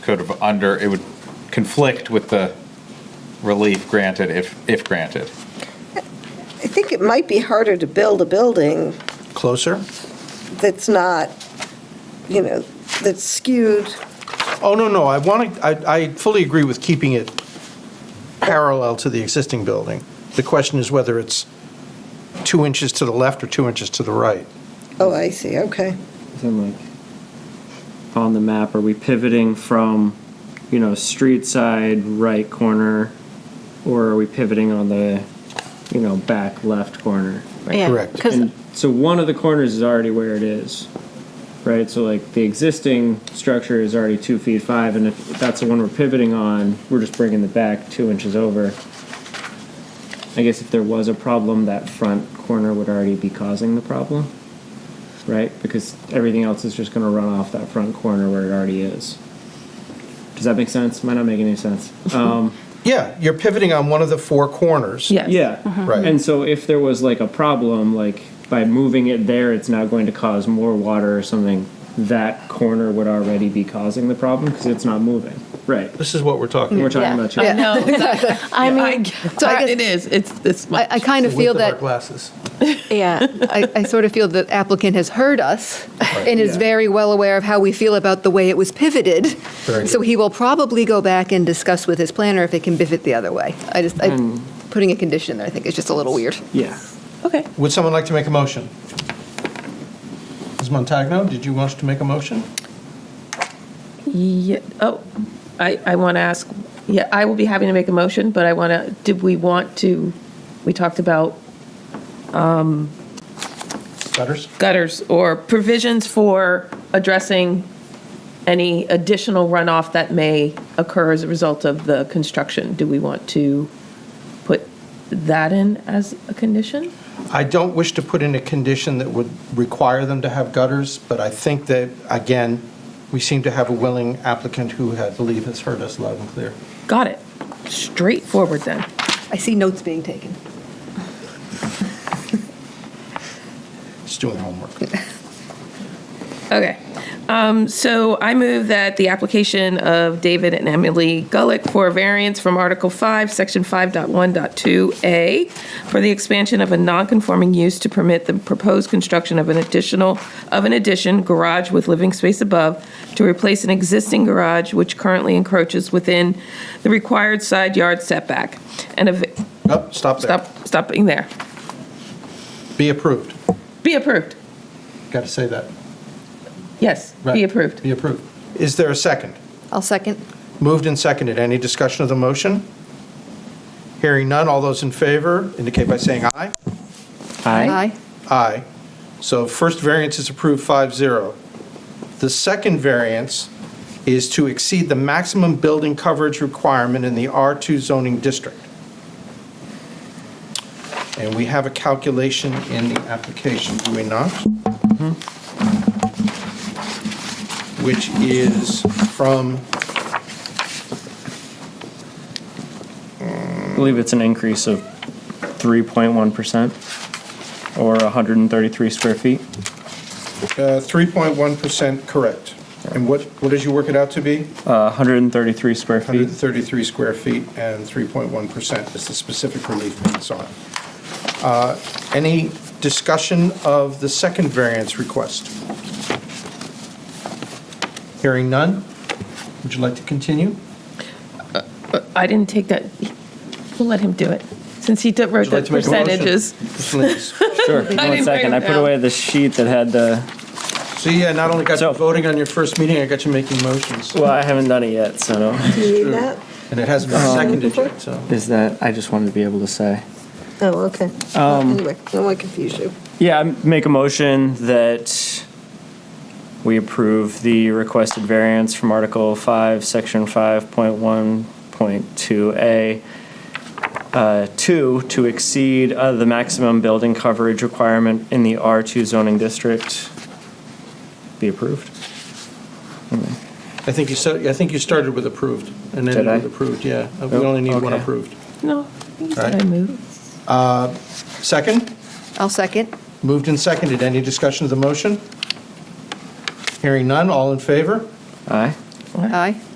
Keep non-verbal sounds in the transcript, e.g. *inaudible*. could have under, it would conflict with the relief granted if, if granted. I think it might be harder to build a building Closer? that's not, you know, that's skewed. Oh, no, no, I want to, I, I fully agree with keeping it parallel to the existing building. The question is whether it's two inches to the left or two inches to the right. Oh, I see, okay. So like on the map, are we pivoting from, you know, street side right corner, or are we pivoting on the, you know, back left corner? Yeah, Correct. 'cause- And so one of the corners is already where it is, right? So like the existing structure is already two feet five, and if that's the one we're pivoting on, we're just bringing the back two inches over. I guess if there was a problem, that front corner would already be causing the problem, right? Because everything else is just going to run off that front corner where it already is. Does that make sense? Might not make any sense. Um, Yeah, you're pivoting on one of the four corners. Yes. Mm-hmm. yeah. Right. And so if there was like a problem, like by moving it there, it's now going to cause more water or something, that corner would already be causing the problem because it's not moving. Right. This is what we're talking We're about. talking about you. I know. I mean, So I I guess- it is, it's this I, much. I kind of With feel our that, glasses. yeah, I, I sort of feel that applicant has heard us and is Yeah. very well aware of how we feel about the way it was pivoted. Very So good. he will probably go back and discuss with his planner if it can pivot the other way. I just, I, putting a condition there, I think is just a little weird. Yeah. Okay. Would someone like to make a motion? Ms. Montagno, did you want to make a motion? Yeah, oh, I, I want to ask, yeah, I will be happy to make a motion, but I want to, did we want to, we talked about Butters? gutters or provisions for addressing any additional runoff that may occur as a result of the construction. Do we want to put that in as a condition? I don't wish to put in a condition that would require them to have gutters, but I think that, again, we seem to have a willing applicant who I believe has heard us loud and clear. Got it. Straightforward then. I see notes being taken. It's doing *laughs* homework. Okay. Um, So I move that the application of David and Emily Gullick for a variance from Article 5, Section 5.1.2A for the expansion of a non-conforming use to permit the proposed construction of an additional, of an addition garage with living space above to replace an existing garage which currently encroaches within the required side yard setback. And of, Oh, stop there. stop, stopping there. Be approved. Be approved. Got to say that. Yes, Right. be approved. Be approved. Is there a second? I'll second. Moved and seconded. Any discussion of the motion? Hearing none. All those in favor indicate by saying aye. Aye. Aye. So first variance is approved 5-0. The second variance is to exceed the maximum building coverage requirement in the R2 zoning district. And we have a calculation in the application, do we not? Which is from, I believe it's an increase of 3.1% or 133 square feet. uh, 3.1% correct. And what, what did you work it out to be? Uh, 133 square feet. 133 square feet and 3.1% is the specific relief that it's on. Uh, Any discussion of the second variance request? Hearing none? Would you like to continue? I didn't take that, we'll let him do it, since he did- wrote Would you the like to make a motion? percentages. Please. Sure. One didn't write second. I them put down. away the sheet that had the. See, I not only got you So- voting on your first meeting, I got you making motions. Well, I haven't done it yet, so no. Do you need that? And it hasn't Um, been seconded yet, so. Is that I just wanted to be able to say. Oh, okay. Anyway, I don't want to confuse you. Yeah, I make a motion that we approve the requested variance from Article 5, Section 5.1.2A, uh, 2, to exceed uh, the maximum building coverage requirement in the R2 zoning district. Be approved. I think you said, I think you started with approved and ended Did I? with approved, yeah. We Oh, only need one okay. approved. No, he said I Right. moved. Second? I'll second. Moved and seconded. Any discussion of the motion? Hearing none, all in favor? Aye. Aye.